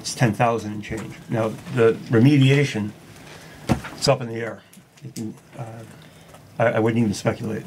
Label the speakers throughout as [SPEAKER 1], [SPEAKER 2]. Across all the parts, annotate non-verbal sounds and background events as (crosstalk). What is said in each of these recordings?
[SPEAKER 1] it's ten thousand and change. Now, the remediation, it's up in the air. You can, uh, I, I wouldn't even speculate.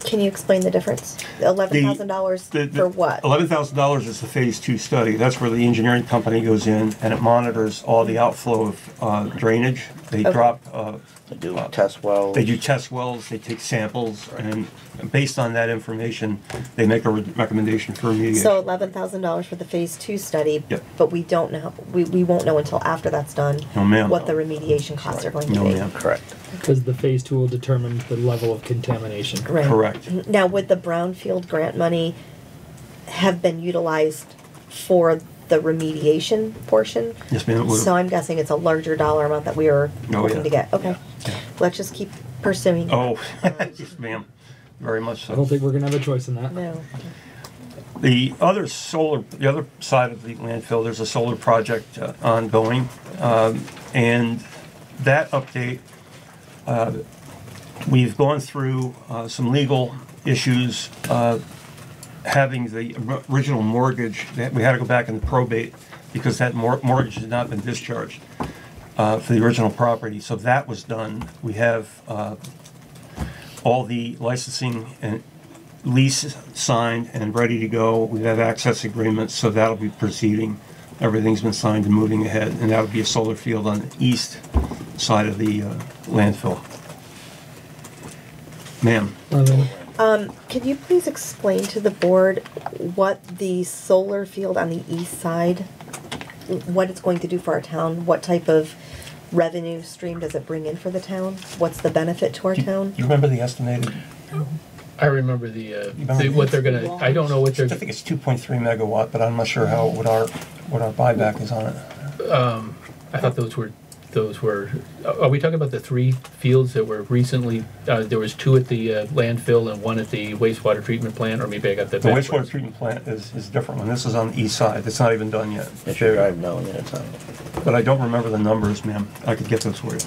[SPEAKER 2] Can you explain the difference? Eleven thousand dollars for what?
[SPEAKER 1] Eleven thousand dollars is the phase two study. That's where the engineering company goes in and it monitors all the outflow of uh, drainage. They
[SPEAKER 2] Okay.
[SPEAKER 1] drop, uh,
[SPEAKER 3] They do test wells.
[SPEAKER 1] they do test wells, they take samples, and based on that information, they make a re- recommendation for remediation.
[SPEAKER 2] So eleven thousand dollars for the phase two study,
[SPEAKER 1] Yep.
[SPEAKER 2] but we don't know, we, we won't know until after that's done.
[SPEAKER 1] No, ma'am.
[SPEAKER 2] What the remediation costs are going
[SPEAKER 1] No,
[SPEAKER 2] to
[SPEAKER 1] ma'am.
[SPEAKER 2] be.
[SPEAKER 3] Correct.
[SPEAKER 4] Because the phase two will determine the level of contamination.
[SPEAKER 2] Right.
[SPEAKER 1] Correct.
[SPEAKER 2] Now, would the brownfield grant money have been utilized for the remediation portion?
[SPEAKER 1] Yes, ma'am, it would've.
[SPEAKER 2] So I'm guessing it's a larger dollar amount that we are
[SPEAKER 1] Oh,
[SPEAKER 2] looking
[SPEAKER 1] yeah.
[SPEAKER 2] to get, okay. Let's just keep pursuing.
[SPEAKER 1] Oh, (laughs) yes, ma'am, very much so.
[SPEAKER 4] I don't think we're gonna have a choice in that.
[SPEAKER 2] No,
[SPEAKER 1] The other solar, the other side of the landfill, there's a solar project uh, ongoing, um, and that update, uh, we've gone through uh, some legal issues, uh, having the or- original mortgage, that we had to go back and probate because that mor- mortgage had not been discharged uh, for the original property, so that was done. We have uh, all the licensing and lease signed and ready to go. We have access agreements, so that'll be proceeding. Everything's been signed and moving ahead, and that would be a solar field on the east side of the uh, landfill. Ma'am,
[SPEAKER 4] I mean,
[SPEAKER 2] Can you please explain to the board what the solar field on the east side, what it's going to do for our town? What type of revenue stream does it bring in for the town? What's the benefit to our town?
[SPEAKER 1] you remember the estimated?
[SPEAKER 5] I remember the, uh,
[SPEAKER 1] remember
[SPEAKER 5] the- what they're gonna,
[SPEAKER 6] Walls.
[SPEAKER 5] I don't know what
[SPEAKER 1] I
[SPEAKER 5] they're,
[SPEAKER 1] think it's 2.3 megawatt, but I'm not sure how, what our, what our buyback is on it.
[SPEAKER 5] I thought those were, those were, are we talking about the three fields that were recently, uh, there was two at the uh, landfill and one at the wastewater treatment plant, or maybe I got that
[SPEAKER 1] The
[SPEAKER 5] backwards?
[SPEAKER 1] wastewater treatment plant is, is different one. This is on the east side. It's not even done yet.
[SPEAKER 3] It should drive down there, so.
[SPEAKER 1] But I don't remember the numbers, ma'am. I could get those for you.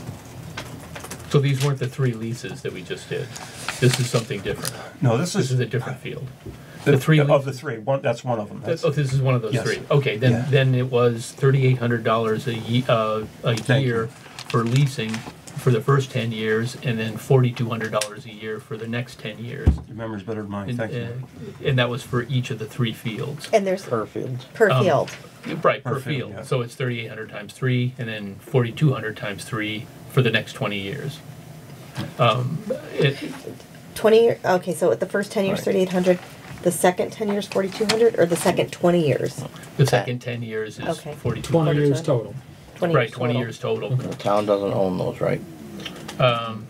[SPEAKER 5] So these weren't the three leases that we just did. This is something different.
[SPEAKER 1] No, this
[SPEAKER 5] This
[SPEAKER 1] is.
[SPEAKER 5] is a different field. The three,
[SPEAKER 1] Of
[SPEAKER 5] leases-
[SPEAKER 1] the three, one, that's one of them. That's-
[SPEAKER 5] oh, this is one of those
[SPEAKER 1] Yes.
[SPEAKER 5] three. Okay,
[SPEAKER 1] Yeah.
[SPEAKER 5] then, then it was thirty-eight hundred dollars a ye, uh, a
[SPEAKER 1] Thank you.
[SPEAKER 5] year for leasing for the first ten years and then forty-two hundred dollars a year for the next ten years.
[SPEAKER 1] Your memory's better than mine,
[SPEAKER 5] And,
[SPEAKER 1] thank you.
[SPEAKER 5] uh, And that was for each of the three fields.
[SPEAKER 2] And there's
[SPEAKER 3] Per field.
[SPEAKER 2] per
[SPEAKER 5] Um,
[SPEAKER 2] field.
[SPEAKER 5] Right, per
[SPEAKER 1] Per field, yeah.
[SPEAKER 5] field. So it's thirty-eight hundred times three, and then forty-two hundred times three for the next twenty years. Um, it,
[SPEAKER 2] 20 year, okay, so at the first 10 years,
[SPEAKER 1] Right.
[SPEAKER 2] 3,800, the second 10 years, 4,200, or the second 20 years?
[SPEAKER 5] the second ten years is
[SPEAKER 2] Okay.
[SPEAKER 5] forty-two
[SPEAKER 4] Twenty
[SPEAKER 5] hundred.
[SPEAKER 4] years total.
[SPEAKER 2] 20
[SPEAKER 5] Right, twenty
[SPEAKER 2] total.
[SPEAKER 5] years total.
[SPEAKER 3] The town doesn't own those, right?
[SPEAKER 5] Um,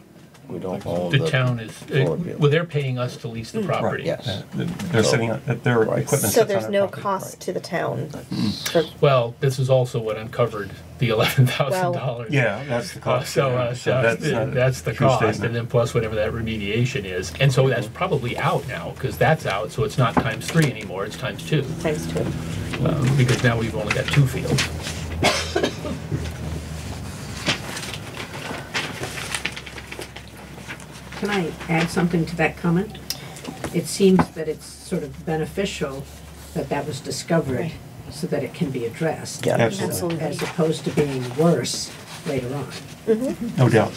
[SPEAKER 3] We don't own the.
[SPEAKER 5] the town is,
[SPEAKER 3] solar
[SPEAKER 5] uh,
[SPEAKER 3] field.
[SPEAKER 5] well,
[SPEAKER 3] (laughs)
[SPEAKER 5] they're paying us to lease the property.
[SPEAKER 3] Yes.
[SPEAKER 1] They're sitting, on- that their
[SPEAKER 3] Right.
[SPEAKER 1] equipment sits
[SPEAKER 2] So
[SPEAKER 1] on
[SPEAKER 2] there's
[SPEAKER 1] our
[SPEAKER 2] no
[SPEAKER 1] property.
[SPEAKER 2] cost to the town. for-
[SPEAKER 5] Well, this is also what uncovered the eleven thousand dollars.
[SPEAKER 1] Yeah, that's the
[SPEAKER 5] Uh,
[SPEAKER 1] cost.
[SPEAKER 5] So,
[SPEAKER 1] yeah.
[SPEAKER 5] uh, so
[SPEAKER 1] that's not
[SPEAKER 5] that's,
[SPEAKER 1] a
[SPEAKER 5] the
[SPEAKER 1] true
[SPEAKER 5] cost,
[SPEAKER 1] statement. Mm-hmm.
[SPEAKER 5] and then plus whatever that remediation is. And so that's probably out now, because that's out, so it's not times three anymore, it's times two,
[SPEAKER 2] Times two.
[SPEAKER 5] um, because now we've only got two fields.
[SPEAKER 6] Can I add something to that comment? It seems that it's sort of beneficial that that was discovered so that it can be addressed.
[SPEAKER 3] Yeah.
[SPEAKER 1] Absolutely,
[SPEAKER 6] As opposed to being worse later on.
[SPEAKER 1] no doubt,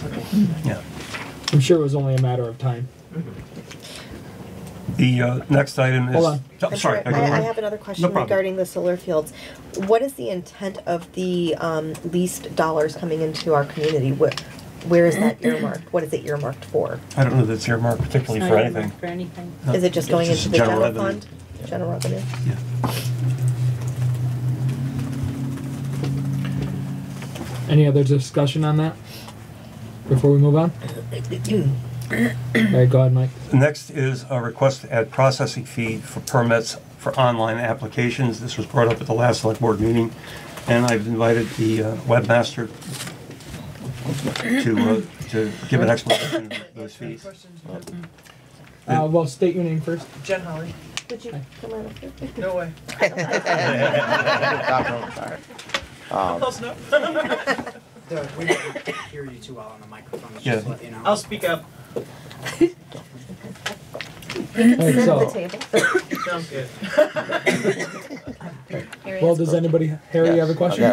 [SPEAKER 1] yeah.
[SPEAKER 4] I'm sure it was only a matter of time.
[SPEAKER 1] The uh, next item is.
[SPEAKER 4] Hold on.
[SPEAKER 1] Oh,
[SPEAKER 2] I'm
[SPEAKER 1] Sorry.
[SPEAKER 2] sorry, I, I have another question
[SPEAKER 1] problem.
[SPEAKER 2] regarding the solar fields. What is the intent of the um, leased dollars coming into our community? Where, where
[SPEAKER 1] (clears throat)
[SPEAKER 2] is that earmarked? What is it earmarked for?
[SPEAKER 1] I don't know that it's earmarked particularly for anything.
[SPEAKER 6] For anything.
[SPEAKER 1] No,
[SPEAKER 2] Is it just going
[SPEAKER 1] Uh, it's
[SPEAKER 2] into the general,
[SPEAKER 1] revenue.
[SPEAKER 2] fund? General revenue?
[SPEAKER 1] Yeah.
[SPEAKER 4] Any other discussion on that? Before we
[SPEAKER 2] (coughs)
[SPEAKER 4] move on? All right, go ahead, Mike.
[SPEAKER 1] The Next is a request to add processing fee for permits for online applications. This was brought up at the last select board meeting, and I've invited the uh, webmaster to, uh, to give an explanation of those fees.
[SPEAKER 4] Uh, well, state your name first.
[SPEAKER 7] Jen Holly.
[SPEAKER 2] Would you come on up here?
[SPEAKER 7] No way.
[SPEAKER 3] Um,
[SPEAKER 7] Close enough.
[SPEAKER 8] we don't hear you too well on the microphone,
[SPEAKER 1] Yeah.
[SPEAKER 8] just to let you know.
[SPEAKER 7] I'll speak up.
[SPEAKER 4] All right,
[SPEAKER 2] Sit at the
[SPEAKER 4] so,
[SPEAKER 2] table.
[SPEAKER 7] Sounds
[SPEAKER 6] (laughs)
[SPEAKER 7] good.
[SPEAKER 4] well, does anybody, Harry, you have a
[SPEAKER 3] Yes,
[SPEAKER 4] question?
[SPEAKER 3] okay.